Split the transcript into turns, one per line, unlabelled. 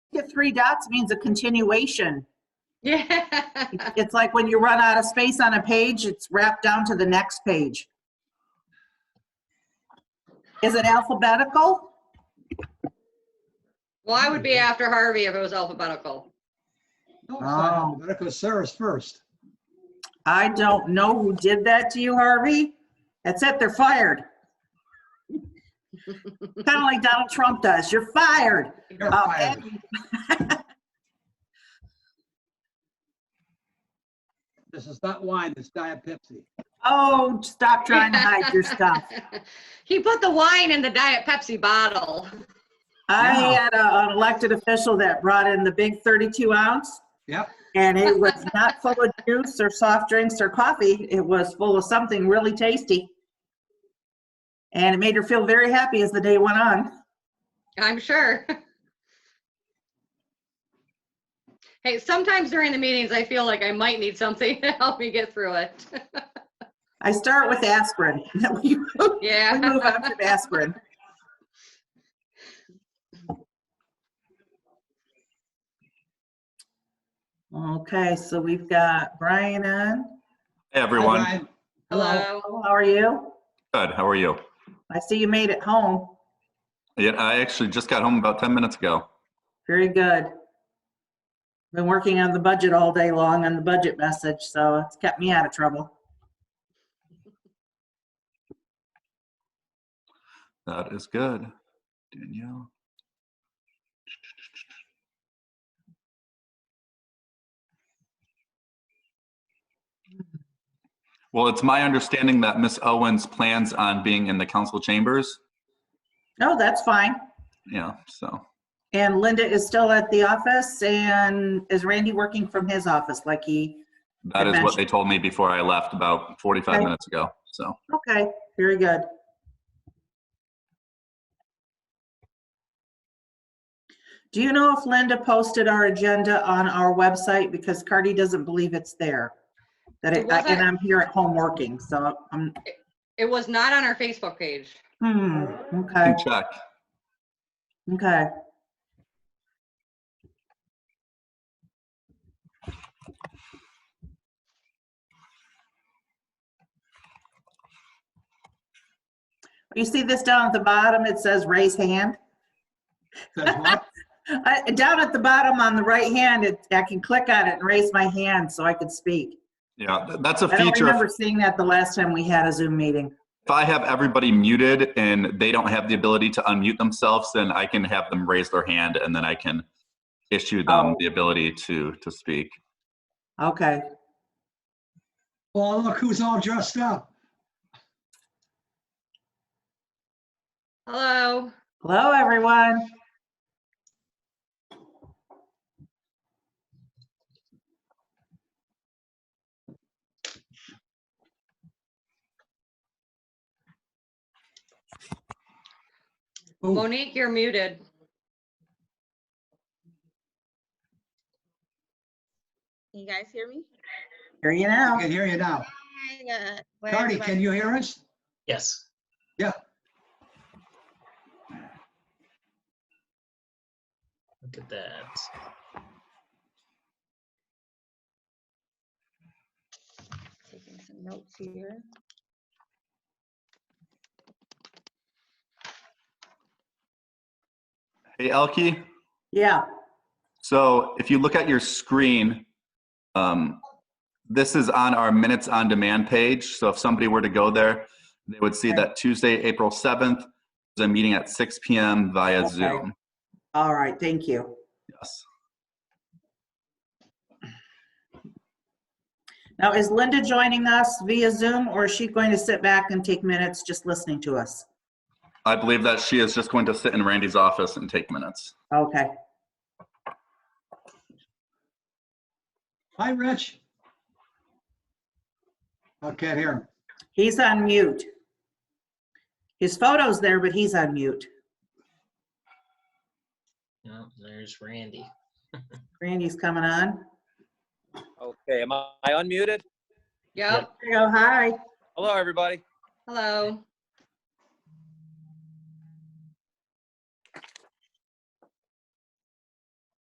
three dots means a continuation.
Yeah.
It's like when you run out of space on a page, it's wrapped down to the next page. Is it alphabetical?
Well, I would be after Harvey if it was alphabetical.
No, it's
Oh.
not alphabetical, it's Sarah's first.
I don't know who did that to you, Harvey. That's it, they're fired. Kind of like Donald Trump does, you're fired.
You're
Uh,
fired. This is not wine, it's Diet Pepsi.
Oh, stop trying to hide your stuff.
He put the wine in the Diet Pepsi bottle.
I
Wow.
had a- an elected official that brought in the big 32 ounce
Yep,
and it was not full of juice or soft drinks or coffee. It was full of something really tasty. And it made her feel very happy as the day went on.
I'm sure. Hey, sometimes during the meetings, I feel like I might need something to help me get through it.
I start with aspirin. We move
Yeah.
on from aspirin. Okay, so we've got Brian on.
Hey,
Hi,
everyone.
Ryan. Hello.
Hello.
How are you?
Good. How are you?
I see you made it home.
Yeah, I actually just got home about 10 minutes ago.
Very good. Been working on the budget all day long on the budget message, so it's kept me out of trouble.
That is good. Danielle. Well, it's my understanding that Miss Owens plans on being in the council chambers.
No, that's fine.
Yeah, so,
And Linda is still at the office and is Randy working from his office like he,
that is what they told me before I left about 45
Okay.
minutes ago, so.
okay, very good. Do you know if Linda posted our agenda on our website? Because Cardi doesn't believe it's there. That it,
It wasn't-
and I'm here at home working, so I'm,
It was not on our Facebook page.
hmm, okay.
Can check.
Okay. You see this down at the bottom, it says raise hand.
Says what?
I- Down at the bottom on the right hand, it- I can click on it and raise my hand so I could speak.
Yeah, th- that's a
I don't
feature.
remember seeing that the last time we had a Zoom meeting.
If I have everybody muted and they don't have the ability to unmute themselves, then I can have them raise their hand and then I can issue
Oh.
them the ability to, to speak.
Okay.
Well, look who's all dressed up.
Hello.
Hello, everyone.
Ooh,
Monique, you're muted.
Can you guys hear me?
Here you
I
now.
can hear you now.
I got- where
Cardi,
everybody-
can you hear us?
Yes.
Yeah.
Look at that.
Taking some notes here.
Hey, Elke,
Yeah.
so if you look at your screen, um, this is on our Minutes on Demand page. So if somebody were to go there, they would see that Tuesday, April 7th, is a meeting at 6 PM via
Okay.
Zoom.
All right. Thank you.
Yes.
Now, is Linda joining us via Zoom or is she going to sit back and take minutes just listening to us?
I believe that she is just going to sit in Randy's office and take minutes.
Okay.
Hi, Rich. I can't hear him.
He's on mute. His photo's there, but he's on mute.
Oh, there's Randy.
Randy's coming on.
Okay, am I I unmuted?
Yep.
There you go. Hi.
Hello, everybody.
Hello.